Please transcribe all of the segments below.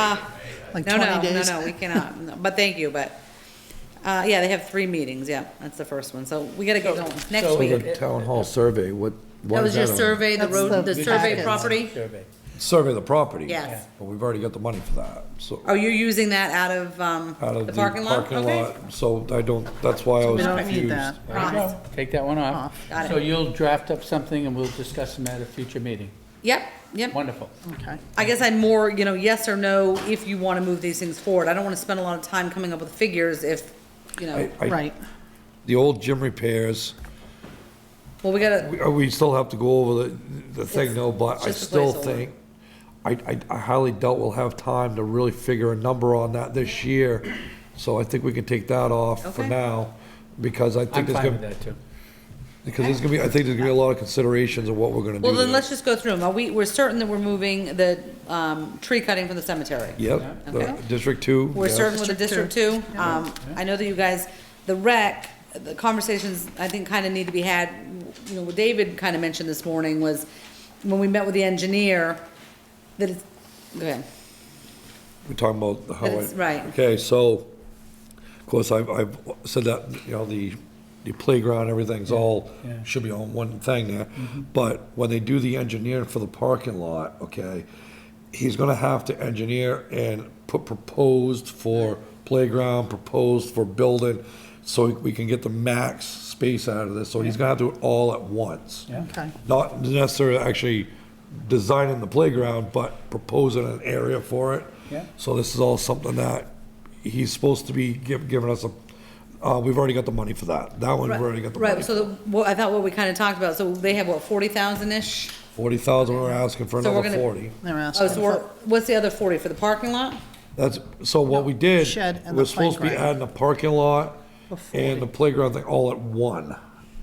Uh, Ah, Like no, no, 20 days. No, no, we cannot, No, but thank you, but, uh, yeah, they have three meetings, yeah, that's the first one, so we gotta get going, next so- So week. the town hall survey, what, Oh, That what was is your that on? survey, the That's road, the the survey packets. property? survey. Survey of the property. Yes. But we've already got the money for that, so. Oh, you're using that out of, um, out of the parking lot? Okay. lot, So I don't, that's why I was we don't need confused. that. There you go. Take that one Off. off. Got it. So you'll draft up something and we'll discuss them at a future meeting. Yep, yep. Wonderful. Okay. I guess I'm more, you know, yes or no, if you wanna move these things forward. I don't wanna spend a lot of time coming up with figures if, you know, I- I- Right. The old gym repairs, well, we gotta, we, uh, we still have to go over the, the thing though, but I It's just a still placeholder. think, I, I- I highly doubt we'll have time to really figure a number on that this year. So I think we can take that off for Okay. now, because I I'm think there's fine with gonna, that too. because there's gonna be, I think there's gonna be a lot of considerations of what we're gonna do. well, then there. let's just go through them. Are we, we're certain that we're moving the, um, tree cutting from the cemetery? Yep, the Okay. District Two. We're yes. serving with the District District Two. Um, I know that you guys, the rec, the conversations, I think, kind of need to be had. You know, what David kind of mentioned this morning was, when we met with the engineer, that it's, go ahead. We're talking about how I. That's right. Okay, so, of course, I've, I've said that, you know, the, the playground, everything's all, yeah. Mm-hmm. should be on one thing there. But when they do the engineering for the parking lot, okay, he's gonna have to engineer and put proposed for playground, proposed for building, so we can get the max space out of this, so he's gonna have to do it all at once. Yeah. Okay. Not necessarily actually designing the playground, but proposing an area for it. Yeah. So this is all something that he's supposed to be giv- giving us a, uh, we've already got the money for that. That one, we've already got the money. Right, so the- what, I thought what we kind of talked about, so they have what, forty thousand-ish? Forty thousand, we're asking for So we're another gonna- forty. They're Oh, asking so we're, for, what's the other forty, for the parking lot? That's, so what we did, Shed and we're the supposed to be playground. adding a parking lot and 40. the playground thing all at one,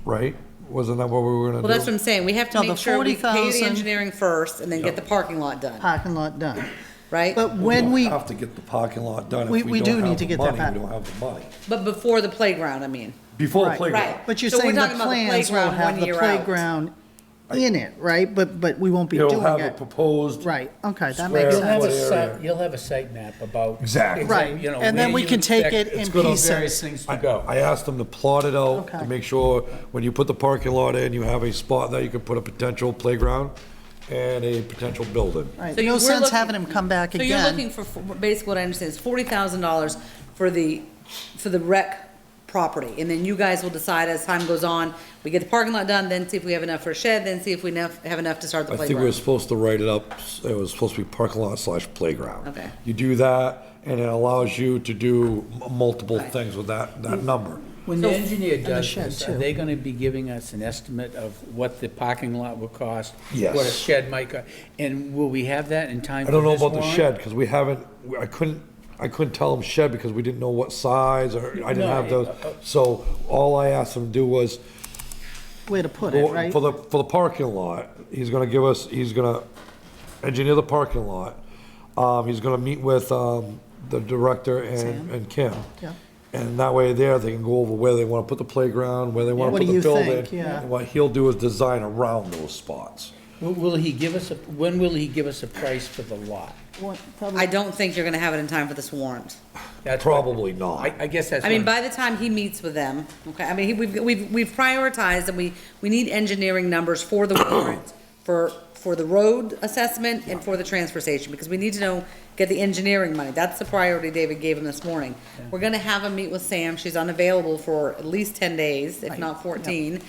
right? Wasn't that what we were Well, that's gonna what do? I'm saying, we have to No, the make sure we pay the 40,000 engineering first, and then get the parking lot done, parking lot done. right? Uh, But We when don't we, Have to get the parking lot done. If We- we don't do have need the to get that money, back. We don't have the money. But before the playground, I mean. Before the Right. playground. Right. but you're So we're saying the talking about the plans will playground one have the year out. playground in it, right? But, but we won't be You'll have doing it it. proposed. Right, okay, that square makes You'll sense. have a foot area. site, you'll have a site map about. Exactly. Right, you know, and then where we you can take expect it in it's gonna- pieces. Various things to I go. I asked them to plot it out to Okay. make sure when you put the parking lot in, you have a spot that you can put a potential playground and a potential building. Right, So you- no we're sense looking- having him come back So you're again. looking for- for, basically what I understand is forty thousand dollars for the, for the rec property, and then you guys will decide as time goes on, we get the parking lot done, then see if we have enough for a shed, then see if we enough, have enough to start the I think we were playground. supposed to write it up, it was supposed to be parking lot slash playground. Okay. You do that, and it allows you to do m- multiple things with that, that number. When the engineer does shed, this, are too. they gonna be giving us an estimate of what the parking lot will cost? What a Yes. shed might cost, and will we have that in time I for don't know this about the warrant? shed, because we haven't, I couldn't, I couldn't tell them shed because we didn't know what size, or I didn't No, have those. uh, uh. So all I asked them to do was, Where to put it, Well, right? For the, for the parking lot, he's gonna give us, he's gonna engineer the parking lot. Um, he's gonna meet with, um, the director and, and Kim. Yeah. And that way there, they can go over where they wanna put the playground, where they wanna What put do the you building. think? Yeah. And what he'll do is design around those spots. Will- Will he give us, a? when will he give us a price for the lot? What- probably- I don't think you're gonna have it in time for this warrant. That's what- Probably not. I, I guess that's. I mean, what by the time he meets with them, okay, I mean, he- we've, we've, we've prioritized and we, we need engineering numbers for the warrant, for, for the road assessment and for the transfer station, because we need to know, get the engineering money. That's the priority David gave him this morning. We're gonna have him meet with Sam. She's unavailable for at least ten days, if not fourteen.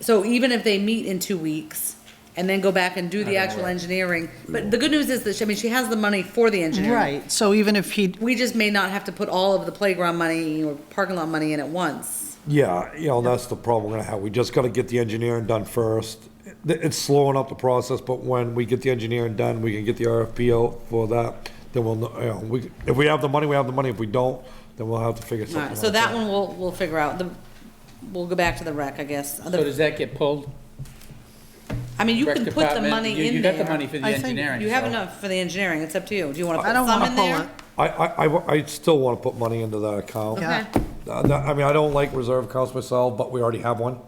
So even if they meet in two weeks and then go back and do the actual engineering, but the good news is that, she- I mean, she has the money for the engineering. Right, so even if he, We just may not have to put all of the playground money or parking lot money in at once. Yeah, you know, that's the problem we're gonna have. We just gotta get the engineering done first. It- It's slowing up the process, but when we get the engineering done, we can get the RFP out for that, then we'll, know- you know, we, if we have the money, we have the money. If we don't, then we'll have to figure All something right, out. so that one we'll, we'll figure out. The, we'll go back to the rec, I guess. So does that get pulled? I mean, you Rec can put the department? You- money in You there. got the money for the I think engineering. You have so- enough for the engineering. It's up to you. Do you want to I put don't some wanna in pull there? I, I, I wa- I still wanna put money into that account. Yeah. Okay. Uh, that- I mean, I don't like reserve accounts myself, but we already have one.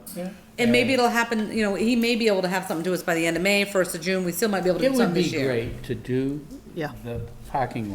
And maybe it'll happen, you know, he may be able to have something to us by the end of May, first of June. We still might be able to It do would something be this year. great to do Yeah. the parking